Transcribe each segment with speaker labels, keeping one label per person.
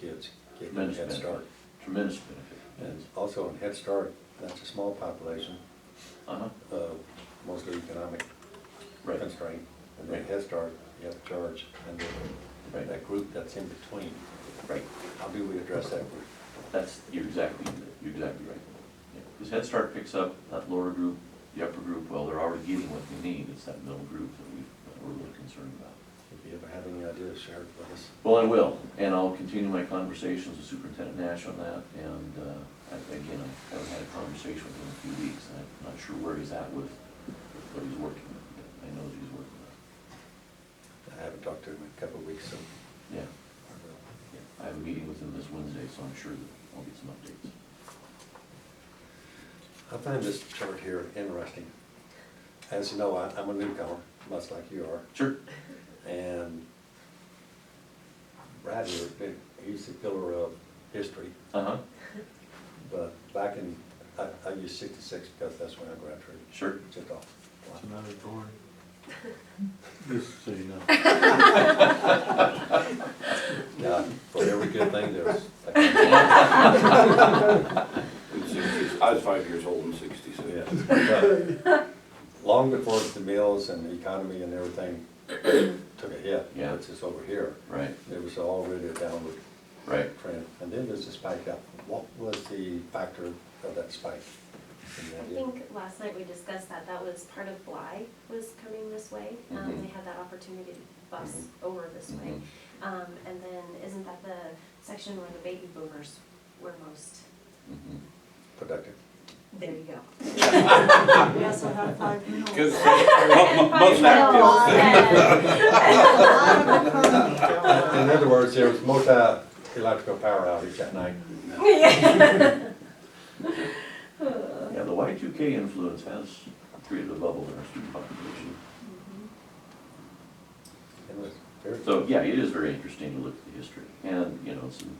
Speaker 1: kids, get them a
Speaker 2: Tremendous
Speaker 1: head start.
Speaker 2: benefit, tremendous benefit.
Speaker 1: And also in Head Start, that's a small population,
Speaker 2: Uh-huh,
Speaker 1: uh, mostly economic
Speaker 2: right,
Speaker 1: constraint. And then
Speaker 2: Right.
Speaker 1: Head Start, you have to charge, and then
Speaker 2: Right.
Speaker 1: that group that's in between,
Speaker 2: right.
Speaker 1: how do we address that group?
Speaker 2: That's, you're exactly, you're exactly right. Because Head Start picks up that lower group, the upper group, well, they're already getting what they need, it's that middle group that we, that we're really concerned about.
Speaker 1: If you ever have any ideas, share it with us.
Speaker 2: Well, I will, and I'll continue my conversations with Superintendent Nash on that, and, uh, I- again, I haven't had a conversation with him in a few weeks, and I'm not sure where he's at with what he's working on, but I know that he's working on
Speaker 1: I haven't talked to him in a couple of weeks, so
Speaker 2: it. Yeah.
Speaker 1: I will.
Speaker 2: Yeah, I have a meeting with him this Wednesday, so I'm sure that I'll get some updates.
Speaker 1: I find this chart here interesting. As you know, I, I'm a newcomer, much like you are.
Speaker 2: Sure.
Speaker 1: And Bradley, he's the pillar of history,
Speaker 2: Uh-huh,
Speaker 1: but back in, I, I used sixty-six because that's when I graduated.
Speaker 2: sure.
Speaker 1: Just off.
Speaker 3: It's another board. Just so you know.
Speaker 1: Yeah, for every good thing, there's.
Speaker 4: In 60s I was five years old in sixty-six.
Speaker 1: Yeah, but Long before the mills and the economy and everything took a hit,
Speaker 2: Yeah.
Speaker 1: which is over here,
Speaker 2: Right,
Speaker 1: there was already a downward
Speaker 2: right.
Speaker 1: trend. And then there's a spike up. What was the factor of that spike? Can you
Speaker 5: I
Speaker 1: idea?
Speaker 5: think last night we discussed that, that was part of Bly was coming this way. Um,
Speaker 2: Mhm.
Speaker 5: they had that opportunity to bus
Speaker 2: Mm-hmm.
Speaker 5: over this way. Um, and then isn't that the section where the baby boomers were most,
Speaker 2: Mhm.
Speaker 1: Productive.
Speaker 5: there you go.
Speaker 6: We also have five meals.
Speaker 4: Because
Speaker 5: And
Speaker 4: most
Speaker 5: probably a lot of-
Speaker 6: A lot of economy going on.
Speaker 1: In other words, there was multi-electrical power outage that night.
Speaker 2: Yeah, the Y two K influence has created a bubble in our student population.
Speaker 1: It was very,
Speaker 2: So, yeah, it is very interesting to look at the history and, you know, some,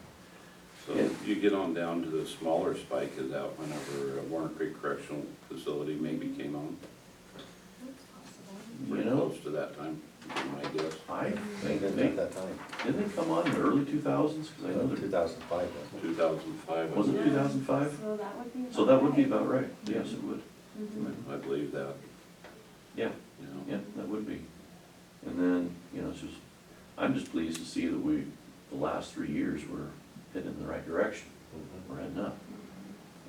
Speaker 4: So you get on down to the smaller spike is out whenever uh, Warren Creek Correctional Facility maybe came on.
Speaker 5: That's possible.
Speaker 2: you
Speaker 4: Pretty
Speaker 2: know,
Speaker 4: close to that time, I guess.
Speaker 2: I
Speaker 1: they
Speaker 2: think,
Speaker 1: didn't
Speaker 2: they,
Speaker 1: at that time,
Speaker 2: didn't they come on in the early two thousands? Cause I know
Speaker 1: two
Speaker 2: that,
Speaker 1: thousand five, wasn't it?
Speaker 4: Two thousand five,
Speaker 2: was it two thousand five?
Speaker 5: So that would be.
Speaker 2: So that would be
Speaker 5: right.
Speaker 2: about right. Yes, it would.
Speaker 5: Mhm.
Speaker 4: I believe that,
Speaker 2: Yeah.
Speaker 4: you know.
Speaker 2: Yeah, that would be. And then, you know, it's just, I'm just pleased to see that we, the last three years, we're heading in the right direction.
Speaker 1: Mm-hmm.
Speaker 2: We're heading up.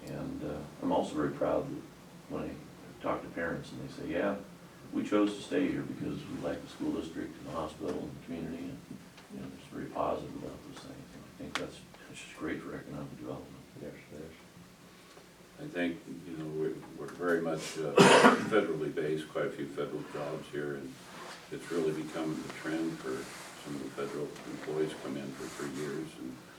Speaker 2: And uh, I'm also very proud that when I talk to parents and they say, yeah, we chose to stay here because we like the school district and the hospital and the community and, you know, it's very positive about those things. And I think that's, that's just great for economic development.
Speaker 1: There's, there's.
Speaker 4: I think, you know, we're, we're very much uh, federally based, quite a few federal jobs here, and it's really become the trend for some of the federal employees come in for three years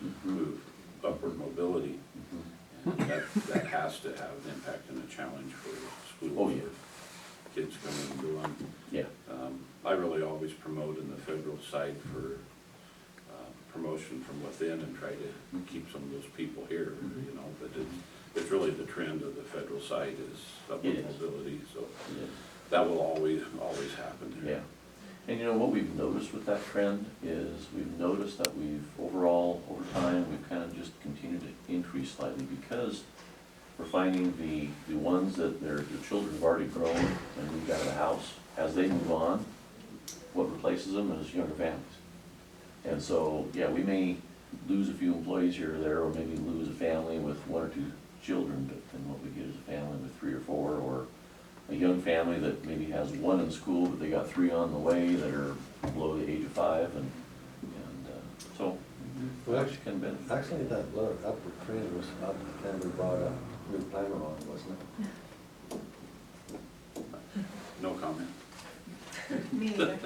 Speaker 2: Hmm.
Speaker 4: and move upward mobility.
Speaker 2: Mm-hmm.
Speaker 4: And that, that has to have an impact and a challenge for schools.
Speaker 2: Oh, yeah.
Speaker 4: or Kids coming and going.
Speaker 2: Yeah,
Speaker 4: Um, I really always promote in the federal side for uh, promotion from within and try to keep some of those people here,
Speaker 2: Mm-hmm.
Speaker 4: you know, but it's, it's really the trend of the federal side is
Speaker 2: It
Speaker 4: upward
Speaker 2: is.
Speaker 4: mobility, so
Speaker 2: it is.
Speaker 4: that will always, always happen
Speaker 2: Yeah.
Speaker 4: here.
Speaker 2: And you know, what we've noticed with that trend is we've noticed that we've overall, over time, we've kind of just continued to increase slightly because we're finding the, the ones that their, their children have already grown and moved out of the house, as they move on, what replaces them is younger families. And so, yeah, we may lose a few employees here or there, or maybe lose a family with one or two children, but then what we get is a family with three or four, or a young family that maybe has one in school, but they got three on the way that are below the age of five, and, and, uh, so, we actually can benefit.
Speaker 1: Actually, that look, upward trend was up, then we brought a new planner on, wasn't it?
Speaker 4: No comment.
Speaker 6: Me neither.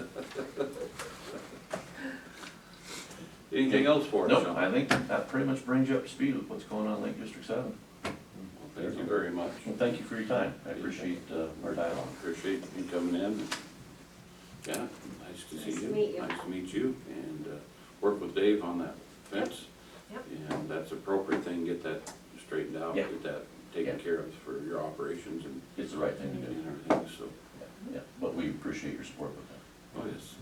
Speaker 4: Anything else for us?
Speaker 2: No,
Speaker 4: Sean?
Speaker 2: I think that pretty much brings you up to speed with what's going on in Lake District Seven.
Speaker 4: Well, Thank you very much.
Speaker 2: Well, thank you for your time, I appreciate, uh, our dialogue.
Speaker 4: Appreciate you coming in. Yeah, nice to see
Speaker 5: Nice to
Speaker 4: you.
Speaker 5: meet you.
Speaker 4: Nice to meet you, and uh, work with Dave on that fence.
Speaker 5: Yep.
Speaker 4: And that's appropriate thing, get that straightened out,
Speaker 2: Yeah.
Speaker 4: get that taken
Speaker 2: Yeah.
Speaker 4: care of for your operations and
Speaker 2: It's the right thing to do,
Speaker 4: and everything, so,
Speaker 2: yeah, but we appreciate your support with that.
Speaker 4: oh, yes,